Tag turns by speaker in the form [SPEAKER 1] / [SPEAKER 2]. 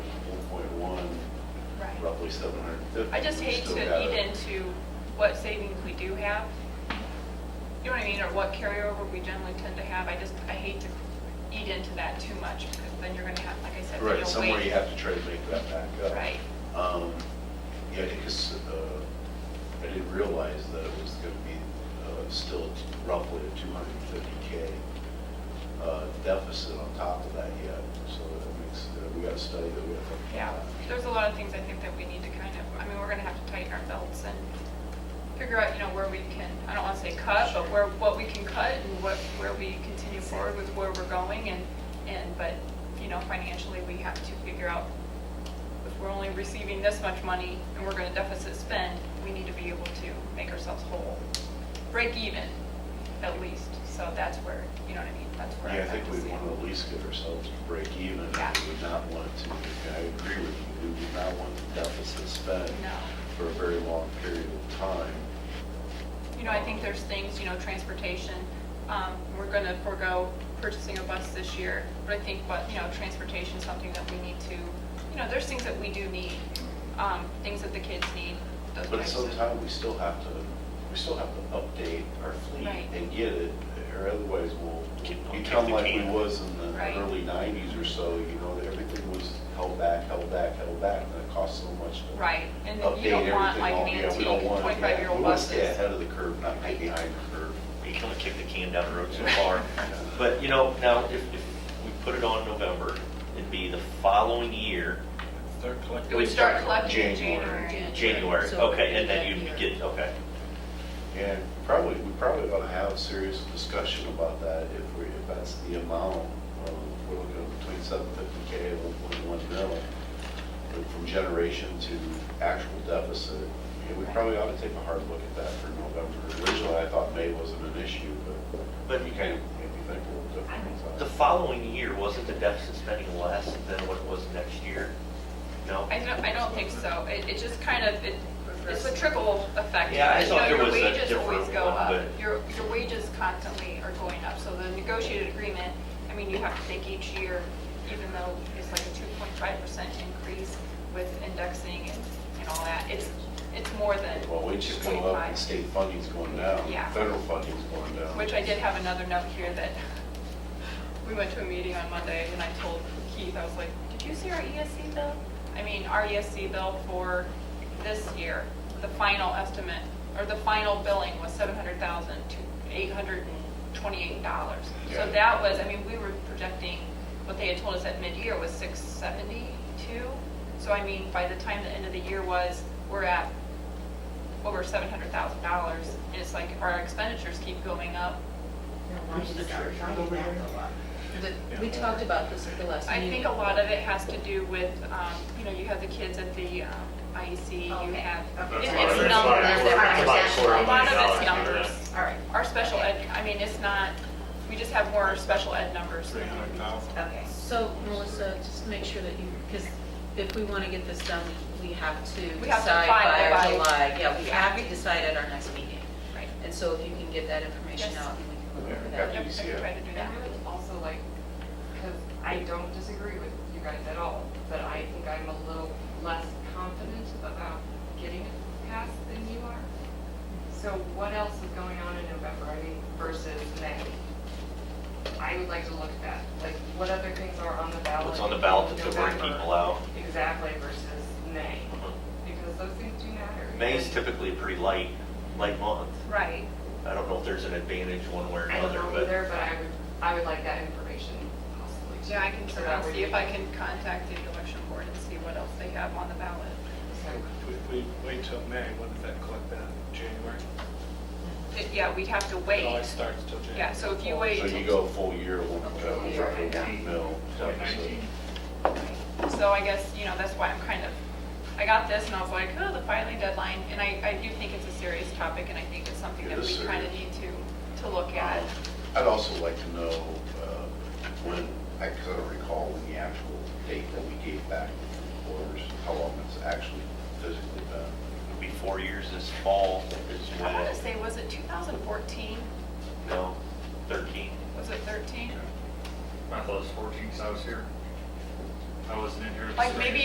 [SPEAKER 1] twenty-seven hundred.
[SPEAKER 2] I just hate to eat into what savings we do have. You know what I mean, or what carryover we generally tend to have. I just, I hate to eat into that too much, because then you're gonna have, like I said, then
[SPEAKER 1] Right,
[SPEAKER 2] you'll
[SPEAKER 1] somewhere
[SPEAKER 2] wait.
[SPEAKER 1] you have to try to make that back up.
[SPEAKER 2] Right.
[SPEAKER 1] Um, Yeah, because uh, I didn't realize that it was going to be uh, still roughly a 250K uh, deficit on top of that yet, so that makes, uh, we got to study that we have to.
[SPEAKER 2] Yeah, there's a lot of things I think that we need to kind of, I mean, we're gonna have to tighten our belts and figure out, you know, where we can, I don't wanna say cut, but where, what we can cut and what, where we continue forward with where we're going and, and, but, you know, financially, we have to figure out if we're only receiving this much money and we're gonna deficit spend, we need to be able to make ourselves whole, break even, at least. So that's where, you know what I mean, that's where.
[SPEAKER 1] Yeah, I
[SPEAKER 2] I'd
[SPEAKER 1] think
[SPEAKER 2] like
[SPEAKER 1] we
[SPEAKER 2] to see
[SPEAKER 1] want
[SPEAKER 2] it.
[SPEAKER 1] to at least get ourselves to break even. We
[SPEAKER 2] Yeah.
[SPEAKER 1] would not want to, and I agree with you, we would not want the deficit spend
[SPEAKER 2] No.
[SPEAKER 1] for a very long period of time.
[SPEAKER 2] You know, I think there's things, you know, transportation, um, we're going to forego purchasing a bus this year, but I think, what, you know, transportation is something that we need to, you know, there's things that we do need, um, things that the kids need, those
[SPEAKER 1] But at
[SPEAKER 2] types
[SPEAKER 1] some
[SPEAKER 2] of.
[SPEAKER 1] time, we still have to, we still have to update our fleet
[SPEAKER 2] Right.
[SPEAKER 1] and get it, or otherwise we'll
[SPEAKER 3] Kick- kick
[SPEAKER 1] become
[SPEAKER 3] the
[SPEAKER 1] like we
[SPEAKER 3] can.
[SPEAKER 1] was in the
[SPEAKER 2] Right.
[SPEAKER 1] early nineties or so, you know, that everything was held back, held back, held back, and it cost so much to
[SPEAKER 2] Right, and you don't
[SPEAKER 1] update everything
[SPEAKER 2] want, like,
[SPEAKER 1] all- yeah, we don't
[SPEAKER 2] antique
[SPEAKER 1] want- yeah,
[SPEAKER 2] 25-year-old
[SPEAKER 1] We want to stay
[SPEAKER 2] buses.
[SPEAKER 1] ahead of the curve, not get
[SPEAKER 2] Right.
[SPEAKER 1] behind the curve.
[SPEAKER 3] We can only kick the can down the road so far. But, you know, now, if, if we put it on November, it'd be the following year,
[SPEAKER 4] They're
[SPEAKER 2] It
[SPEAKER 4] collecting.
[SPEAKER 2] would start collecting in
[SPEAKER 1] January.
[SPEAKER 2] January.
[SPEAKER 3] January,
[SPEAKER 5] So
[SPEAKER 3] okay, and then
[SPEAKER 5] it'd be
[SPEAKER 3] you'd
[SPEAKER 5] that year.
[SPEAKER 3] get, okay.
[SPEAKER 1] And probably, we probably ought to have a serious discussion about that if we, if that's the amount, um, we're looking at between seven fifty K and one point one mil. but From generation to actual deficit, and we probably ought to take a hard look at that for November. Originally, I thought May wasn't an issue, but
[SPEAKER 3] But-
[SPEAKER 1] you kind of made me think a little differently.
[SPEAKER 3] The following year, wasn't the deficit spending less than what it was next year? No?
[SPEAKER 2] I don't, I don't think so, it, it just kind of, it, it's a trickle effect.
[SPEAKER 3] Yeah, I
[SPEAKER 2] You know,
[SPEAKER 3] thought there
[SPEAKER 2] your
[SPEAKER 3] was a
[SPEAKER 2] wages always
[SPEAKER 3] different
[SPEAKER 2] go
[SPEAKER 3] one,
[SPEAKER 2] up.
[SPEAKER 3] but-
[SPEAKER 2] Your, your wages constantly are going up, so the negotiated agreement, I mean, you have to take each year, even though it's like a two point five percent increase with indexing and, and all that, it's, it's more than
[SPEAKER 1] Well, we just go up and
[SPEAKER 2] 2.5.
[SPEAKER 1] state funding's going down,
[SPEAKER 2] Yeah.
[SPEAKER 1] federal funding's going down.
[SPEAKER 2] Which I did have another note here that, we went to a meeting on Monday and I told Keith, I was like, did you see our ESC bill? I mean, our ESC bill for this year, the final estimate, or the final billing was seven hundred thousand to eight hundred and twenty-eight dollars.
[SPEAKER 1] Yeah.
[SPEAKER 2] So that was, I mean, we were projecting, what they had told us at mid-year was six seventy-two. So I mean, by the time the end of the year was, we're at over seven hundred thousand dollars. And it's like, if our expenditures keep going up,
[SPEAKER 5] But We talked about this at the last
[SPEAKER 2] I
[SPEAKER 5] meeting.
[SPEAKER 2] think a lot of it has to do with, um, you know, you have the kids at the um, IEC, you
[SPEAKER 5] Okay.
[SPEAKER 2] have,
[SPEAKER 5] Okay.
[SPEAKER 2] it-
[SPEAKER 5] That's
[SPEAKER 2] it's
[SPEAKER 5] why-
[SPEAKER 2] numbers.
[SPEAKER 5] that's why I work- that's why I
[SPEAKER 2] A
[SPEAKER 5] work
[SPEAKER 2] lot
[SPEAKER 5] on
[SPEAKER 2] of it's
[SPEAKER 5] it.
[SPEAKER 2] numbers.
[SPEAKER 5] All right,
[SPEAKER 2] Our special ed, I mean, it's not, we just have more special ed numbers.
[SPEAKER 4] Three hundred thousand.
[SPEAKER 5] okay. So Melissa, just make sure that you, because if we want to get this done, we have to
[SPEAKER 2] We have to
[SPEAKER 5] decide by
[SPEAKER 2] finalize.
[SPEAKER 5] our July. Yeah, we have to
[SPEAKER 2] Yeah.
[SPEAKER 5] decide at our next meeting.
[SPEAKER 2] Right.
[SPEAKER 5] And so if you can get that information
[SPEAKER 2] Yes.
[SPEAKER 5] out, then we
[SPEAKER 1] Yeah,
[SPEAKER 5] can look
[SPEAKER 1] we
[SPEAKER 5] for
[SPEAKER 1] have
[SPEAKER 5] that.
[SPEAKER 2] Yep, I can try to do
[SPEAKER 6] And
[SPEAKER 2] that.
[SPEAKER 6] I would also like, because I don't disagree with you guys at all, but I think I'm a little less confident about getting it passed than you are. So what else is going on in November, I mean, versus May? I would like to look at that, like, what other things are on the ballot?
[SPEAKER 3] What's on the ballot that's to bring
[SPEAKER 6] November?
[SPEAKER 3] people out?
[SPEAKER 6] Exactly, versus May, because those things do matter.
[SPEAKER 3] May's typically a pretty light, light month.
[SPEAKER 2] Right.
[SPEAKER 3] I don't know if there's an advantage one way or
[SPEAKER 6] I don't
[SPEAKER 3] another,
[SPEAKER 6] know
[SPEAKER 3] but.
[SPEAKER 6] either, but I would, I would like that information possibly. too.
[SPEAKER 2] Yeah, I can
[SPEAKER 6] So
[SPEAKER 2] try
[SPEAKER 6] that
[SPEAKER 2] and
[SPEAKER 6] way
[SPEAKER 2] see
[SPEAKER 6] we
[SPEAKER 2] if I can contact the election board and see what else they have on the ballot.
[SPEAKER 6] So-
[SPEAKER 4] If we wait till May, when does that collect that? January?
[SPEAKER 2] It- Yeah, we'd have to
[SPEAKER 4] It always
[SPEAKER 2] wait.
[SPEAKER 4] starts till January.
[SPEAKER 2] Yeah, so if you
[SPEAKER 1] So
[SPEAKER 2] wait.
[SPEAKER 1] you go a full year, we'll, uh, we'll drop a one mil.
[SPEAKER 4] Nineteen.
[SPEAKER 2] So I guess, you know, that's why I'm kind of, I got this and I was like, oh, the filing deadline, and I, I do think it's a serious topic, and I think it's something
[SPEAKER 1] It
[SPEAKER 2] that we
[SPEAKER 1] is
[SPEAKER 2] kind of
[SPEAKER 1] serious.
[SPEAKER 2] need to, to look at.
[SPEAKER 1] I'd also like to know uh, when, I couldn't recall when the actual date that we gave back to the reporters, how long it's actually physically been.
[SPEAKER 3] It'll be four years this fall is
[SPEAKER 2] I want to
[SPEAKER 3] when,
[SPEAKER 2] say, was it 2014?
[SPEAKER 3] no, 13.
[SPEAKER 2] Was it 13?
[SPEAKER 7] I thought it was 14 because I was here. I wasn't in here. at the
[SPEAKER 2] Like,
[SPEAKER 7] hearing.
[SPEAKER 2] maybe